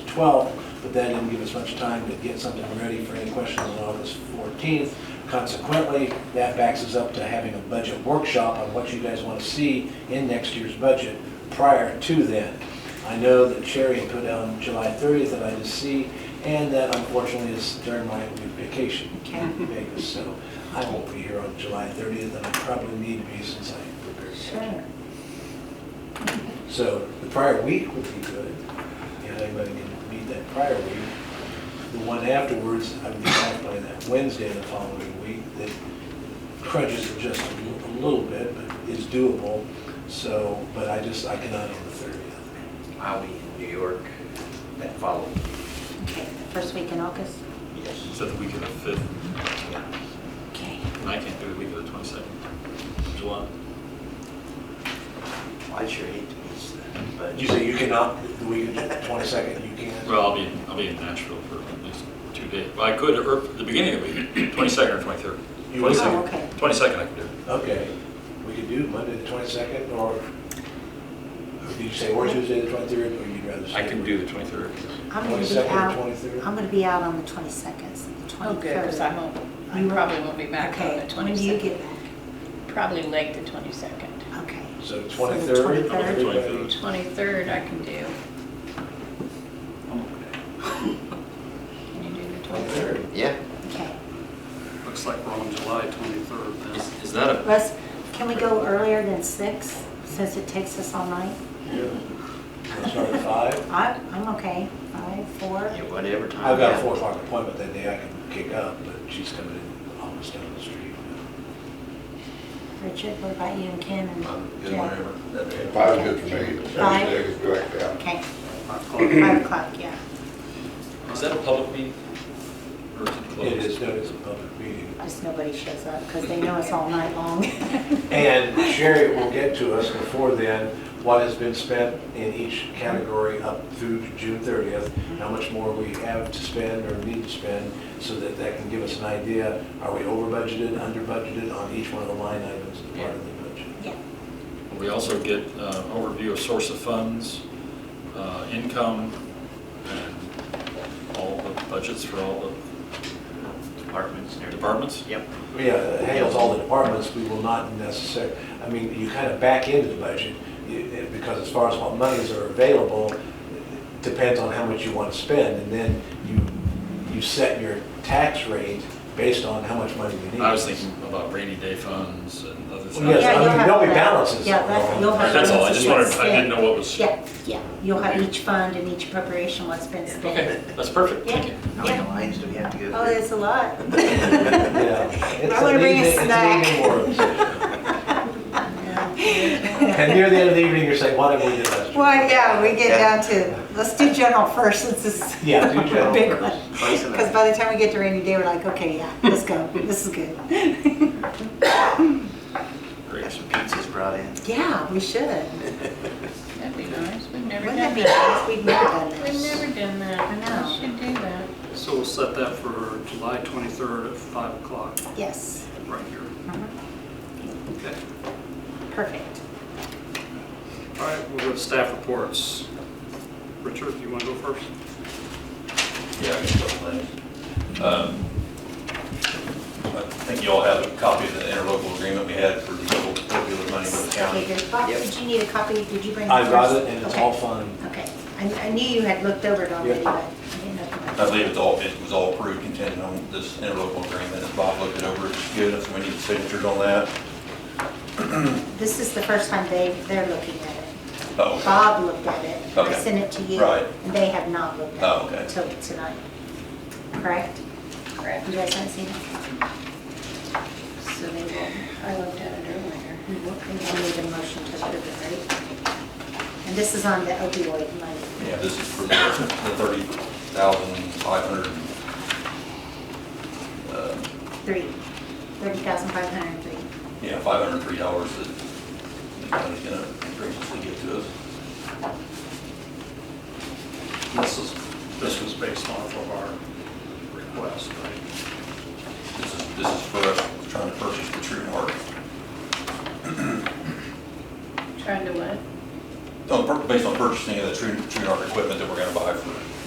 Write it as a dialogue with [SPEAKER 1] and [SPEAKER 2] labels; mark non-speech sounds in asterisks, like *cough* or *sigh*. [SPEAKER 1] 12th, but that didn't give us much time to get something ready for any questions on August 14th. Consequently, that backs us up to having a budget workshop on what you guys want to see in next year's budget prior to then. I know that Sherry had put down July 30th that I didn't see, and that unfortunately is during my vacation in Vegas, so I won't be here on July 30th, and I probably need to be since I prepared.
[SPEAKER 2] Sure.
[SPEAKER 1] So the prior week would be good, if anybody can meet that prior week. The one afterwards, I would be back by that Wednesday the following week, that crunches it just a little- a little bit, but it's doable. So, but I just, I cannot on the 30th.
[SPEAKER 3] I'll be in New York that following.
[SPEAKER 2] Okay, first week in August?
[SPEAKER 3] Yes.
[SPEAKER 4] Is that the week of the 5th?
[SPEAKER 2] Okay.
[SPEAKER 4] And I can't do the week of the 22nd, July.
[SPEAKER 3] I sure hate to miss that, but.
[SPEAKER 1] You say you cannot, the week of the 22nd, you can?
[SPEAKER 4] Well, I'll be, in- I'll be in Nashville for at least two days. Well, I could, or the beginning of the week, *clears throat* 22nd or 23rd.
[SPEAKER 1] You
[SPEAKER 4] 22nd.
[SPEAKER 2] will? Oh, okay.
[SPEAKER 4] 22nd I can do.
[SPEAKER 1] Okay, we could do Monday the 22nd, or or did you say, or Tuesday the 23rd, or you'd rather?
[SPEAKER 4] I
[SPEAKER 1] say-
[SPEAKER 4] can do the 23rd.
[SPEAKER 2] I'm gonna be
[SPEAKER 1] 22nd or
[SPEAKER 2] out,
[SPEAKER 1] 23rd?
[SPEAKER 2] I'm gonna be out on the 22nd, so the 23rd.
[SPEAKER 5] Oh, good, because I won't, I
[SPEAKER 2] You-
[SPEAKER 5] probably won't be back on the
[SPEAKER 2] Okay, when do you get
[SPEAKER 5] 22nd.
[SPEAKER 2] back?
[SPEAKER 5] Probably late the 22nd.
[SPEAKER 2] Okay.
[SPEAKER 1] So
[SPEAKER 2] the
[SPEAKER 1] 23rd?
[SPEAKER 4] 23rd.
[SPEAKER 2] 23rd.
[SPEAKER 5] 23rd I can do. Can you do the 23rd?
[SPEAKER 1] 23rd.
[SPEAKER 3] Yeah.
[SPEAKER 2] Okay.
[SPEAKER 6] Looks like we're on July 23rd now.
[SPEAKER 4] Is is that a,
[SPEAKER 2] Russ, can we go earlier than six, since it takes us all night?
[SPEAKER 1] Yeah. Start at five?
[SPEAKER 2] I, I'm okay, five, four.
[SPEAKER 3] Yeah, whatever time.
[SPEAKER 1] I've got a four o'clock appointment that day I can kick up, but she's coming in almost down the street.
[SPEAKER 2] Richard, what about you and Ken and Jack?
[SPEAKER 7] Five's good for me.
[SPEAKER 2] Five?
[SPEAKER 7] Tuesday's direct out.
[SPEAKER 2] Okay, *coughs*
[SPEAKER 6] Five o'clock.
[SPEAKER 2] five o'clock, yeah.
[SPEAKER 4] is that a public meeting? Or is it closed?
[SPEAKER 1] It is, no, it's a public meeting.
[SPEAKER 2] Just nobody shows up, because they know it's all night long.
[SPEAKER 1] And Sherry will get to us before then, what has been spent in each category up through June 30th, how much more we have to spend or need to spend, so that that can give us an idea, are we over budgeted, under budgeted on each one of the line items as part of the budget?
[SPEAKER 2] Yeah.
[SPEAKER 4] We also get uh, overview of source of funds, uh, income, and all the budgets for all
[SPEAKER 3] Departments and
[SPEAKER 4] the
[SPEAKER 3] everything.
[SPEAKER 4] departments.
[SPEAKER 3] Yep.
[SPEAKER 1] Yeah, it uh, handles all the departments, we will not necessarily, I mean, you kind of back into the budget, you- eh, because as far as what monies are available, it depends on how much you want to spend, and then you, you set your tax rate based on how much money you need.
[SPEAKER 4] I was thinking about rainy day funds and other things.
[SPEAKER 1] Well, yes,
[SPEAKER 2] Yeah,
[SPEAKER 1] I
[SPEAKER 2] you'll
[SPEAKER 1] mean,
[SPEAKER 2] have
[SPEAKER 1] there'll be
[SPEAKER 2] that.
[SPEAKER 1] balances.
[SPEAKER 2] Yeah, that's, you'll have.
[SPEAKER 4] That's all, I
[SPEAKER 2] balances
[SPEAKER 4] just wanted,
[SPEAKER 2] what's
[SPEAKER 4] I didn't
[SPEAKER 2] spent.
[SPEAKER 4] know what was.
[SPEAKER 2] Yeah, yeah, you'll have each fund and each preparation what's been
[SPEAKER 4] Okay,
[SPEAKER 2] spent.
[SPEAKER 4] that's perfect, thank you.
[SPEAKER 3] How many
[SPEAKER 2] Yeah.
[SPEAKER 3] lines do we have to go through?
[SPEAKER 2] Oh, there's
[SPEAKER 3] *laughs*
[SPEAKER 2] a lot.
[SPEAKER 1] Yeah, it's
[SPEAKER 2] I wanna
[SPEAKER 1] an
[SPEAKER 2] bring
[SPEAKER 1] evening-
[SPEAKER 2] a
[SPEAKER 1] it's an
[SPEAKER 2] snack.
[SPEAKER 1] evening work.
[SPEAKER 2] *laughs*
[SPEAKER 1] And near the end of the evening, you're saying, what have we did last year?
[SPEAKER 2] Well, yeah, we get
[SPEAKER 3] Yeah.
[SPEAKER 2] down to, let's do general first, since this is
[SPEAKER 1] Yeah, do general
[SPEAKER 2] *laughs* a big
[SPEAKER 1] first.
[SPEAKER 2] one.
[SPEAKER 3] Close enough.
[SPEAKER 2] Because by the time we get to rainy day, we're like, okay, yeah, let's go, this is good. *laughs*
[SPEAKER 3] Have some pizzas brought in.
[SPEAKER 2] Yeah, we should.
[SPEAKER 5] That'd be nice, we've
[SPEAKER 2] Wouldn't
[SPEAKER 5] never done
[SPEAKER 2] that be
[SPEAKER 5] that.
[SPEAKER 2] nice? We've never done
[SPEAKER 5] We've
[SPEAKER 2] this.
[SPEAKER 5] never done that,
[SPEAKER 2] I know.
[SPEAKER 5] we should do that.
[SPEAKER 6] So we'll set that for July 23rd at 5 o'clock,
[SPEAKER 2] Yes,
[SPEAKER 6] right here.
[SPEAKER 2] Mhm.
[SPEAKER 6] Okay.
[SPEAKER 2] perfect.
[SPEAKER 6] All right, we'll go to staff reports. Richard, you want to go first?
[SPEAKER 8] Yeah, I can go with that. Um, I think you all have a copy of the interlocal agreement we had for the local opioid money with the
[SPEAKER 2] Okay,
[SPEAKER 8] county.
[SPEAKER 2] good. Bob,
[SPEAKER 3] Yep.
[SPEAKER 2] did you need a copy? Did you bring?
[SPEAKER 1] I got
[SPEAKER 2] first?
[SPEAKER 1] it, and it's
[SPEAKER 2] Okay.
[SPEAKER 1] all fine.
[SPEAKER 2] Okay, I, I knew you had looked over it already,
[SPEAKER 1] Yeah.
[SPEAKER 2] but I didn't know. if you-
[SPEAKER 8] I believe it's all, it was all approved contingent on this interlocal agreement. As Bob looked it over, it's good, so we need signatures on that.
[SPEAKER 2] This is the first time they, they're looking at it.
[SPEAKER 8] Oh, okay.
[SPEAKER 2] Bob looked at it. I
[SPEAKER 8] Okay.
[SPEAKER 2] sent it to you.
[SPEAKER 8] Right.
[SPEAKER 2] And they have not looked at it.
[SPEAKER 8] Oh, okay.
[SPEAKER 2] Till tonight. Correct?
[SPEAKER 5] Correct.
[SPEAKER 2] You guys haven't seen it?
[SPEAKER 5] So they will, I looked at it earlier.
[SPEAKER 2] You will- you will need a motion to approve it, right? And this is on the opioid money.
[SPEAKER 8] Yeah, this is for the thirty thousand five hundred. uh,
[SPEAKER 2] Three, thirty thousand five hundred and three.
[SPEAKER 8] Yeah, five hundred and three dollars that the county's gonna graciously give to us.
[SPEAKER 6] This is, this was based off of our request, right?
[SPEAKER 8] This is, this is for us trying to purchase the True North.
[SPEAKER 5] Trying to what?
[SPEAKER 8] On, pur- based on purchasing of the True, True North equipment that we're gonna buy for